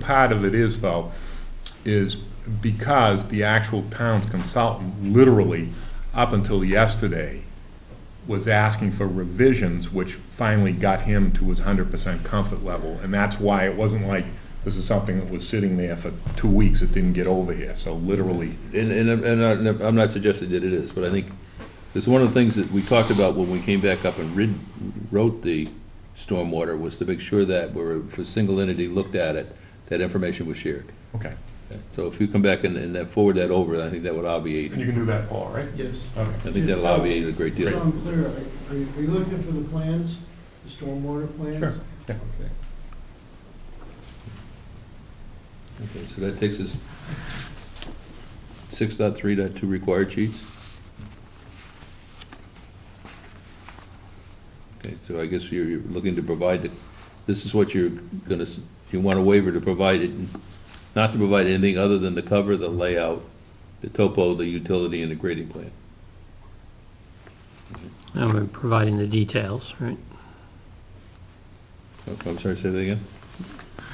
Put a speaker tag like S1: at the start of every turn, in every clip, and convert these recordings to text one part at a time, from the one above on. S1: part of it is though, is because the actual town's consultant literally, up until yesterday, was asking for revisions, which finally got him to his hundred percent comfort level. And that's why it wasn't like, this is something that was sitting there for two weeks, it didn't get over here. So literally,
S2: And, and, I'm- and I'm- I'm not suggesting that it is, but I think it's one of the things that we talked about when we came back up and rid, wrote the stormwater was to make sure that we're, if a single entity looked at it, that information was shared.
S1: okay.
S2: So if you come back and, and then forward that over, I think that would obviate,
S1: You can do that, Paul, right?
S3: Yes.
S1: Okay.
S2: I think that'll obviate a great
S3: So
S2: deal.
S3: I'm clear, are you, are you looking for the plans, the stormwater plans?
S1: Sure, yeah.
S3: Okay.
S2: Okay, So that takes us six dot three dot two required sheets. Okay, so I guess you're you're looking to provide, the- this is what you're gonna, s- you want a waiver to provide it, not to provide anything other than the cover, the layout, the topo, the utility, and the grading plan.
S4: And we're providing the details, right?
S2: Oh, I'm sorry, say that again?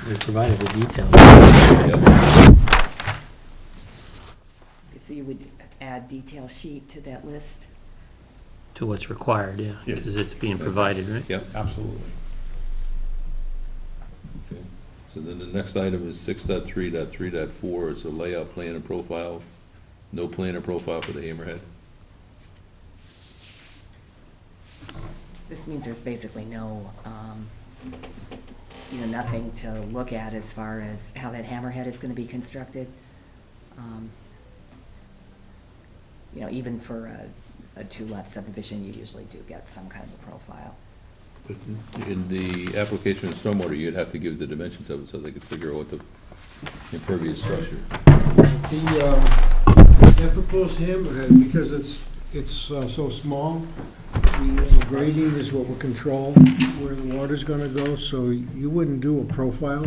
S4: We provided the details.
S2: Yep,
S5: So you would add detail sheet to that list?
S4: To what's required, yeah.
S1: Yes.
S4: Because it's being provided, right?
S1: Absolutely.
S2: okay. So then the next item is six dot three dot three dot four, is the layout plan and profile. No plan or profile for the hammerhead.
S5: This means there's basically no, um, you know, nothing to look at as far as how that hammerhead is gonna be constructed. Um, You know, even for a, a two-lot subdivision, you usually do get some kind of a profile.
S2: But In the application of stormwater, you'd have to give the dimensions of it so they could figure out what the impervious structure.
S3: The, um, that proposed hammerhead, because it's, it's uh, so small, the uh, grading is what will control where the water's gonna go, so you wouldn't do a profile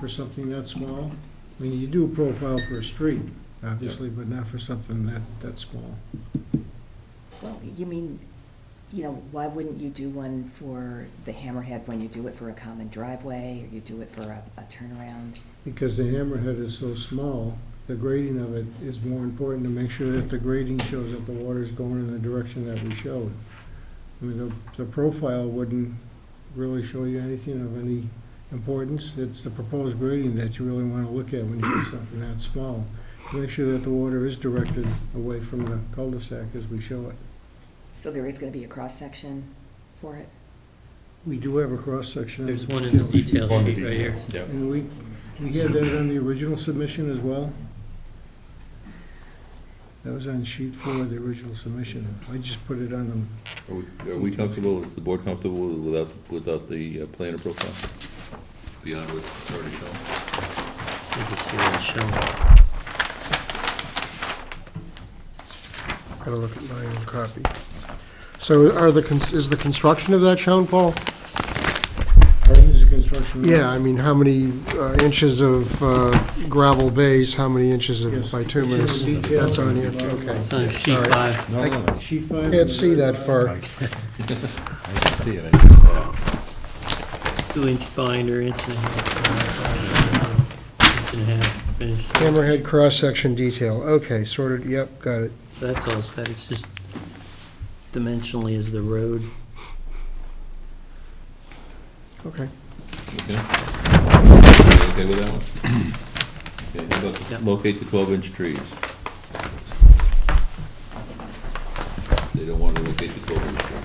S3: for something that small. I mean, you do a profile for a street, obviously, but not for something that, that small.
S5: Well, you mean, you know, why wouldn't you do one for the hammerhead when you do it for a common driveway, or you do it for a, a turnaround?
S3: Because the hammerhead is so small, the grading of it is more important to make sure that the grading shows that the water's going in the direction that we showed. I mean, the, the profile wouldn't really show you anything of any importance. It's the proposed grading that you really wanna look at when you do something that small. to Make sure that the water is directed away from the cul-de-sac as we show it.
S5: So there is gonna be a cross-section for it?
S3: We do have a cross-section. of
S4: There's one in the detail
S1: One
S4: sheet right here.
S1: detail.
S2: Yeah.
S3: And we, we had that on the original submission as well? That was on sheet four, of the original submission. I just put it on them.
S2: Are we- are we comfortable, is the board comfortable without, without the uh, plan or profile? Beyond what's already shown?
S4: You can see what it's showing.
S6: Gotta look at my own copy. So are the, cons- is the construction of that shown, Paul?
S3: Mm-hmm. oh, Is the construction?
S6: Yeah, I mean, how many uh, inches of uh, gravel base, how many inches of
S3: Yes.
S6: bituminous?
S3: It's in detail.
S6: That's on here, okay.
S4: It's on sheet five.
S1: No, no, no.
S3: Sheet five.
S6: Can't see that far.
S1: I can see it. I can see it.
S4: two-inch binder, inch and a half. Inch and a half, finished.
S6: Hammerhead cross-section detail, okay, sorted, yep, got it.
S4: That's all set, it's just dimensionally is the road.
S6: Okay.
S2: Okay. You Okay with that one? Okay, how
S4: Yeah.
S2: about locate the twelve-inch trees? They don't want to locate the twelve-inch tree.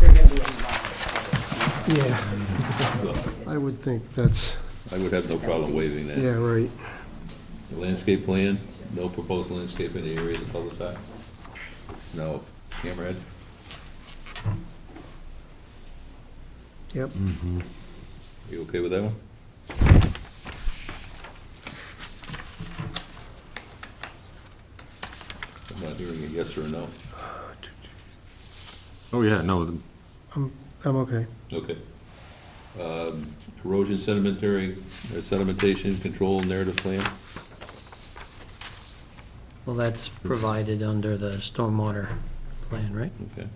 S5: They're gonna be a lot.
S6: Yeah, I would think that's,
S2: I would have no problem waiving that.
S6: yeah, right.
S2: The Landscape plan, no proposed landscape in the area of the cul-de-sac? No. Hammerhead?
S6: Yep.
S2: Mm-hmm. You okay with that one? I'm not hearing a yes or a no.
S7: Oh, yeah, no, the-
S6: I'm okay.
S2: Okay. Um, Erosion sedimentary, or sedimentation control narrative plan?
S4: Well, that's provided under the stormwater plan, right?
S2: Okay.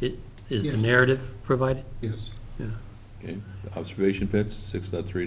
S4: It, is the
S3: Yes.
S4: narrative provided?
S3: Yes.
S4: Yeah.
S2: Okay. Observation pits, six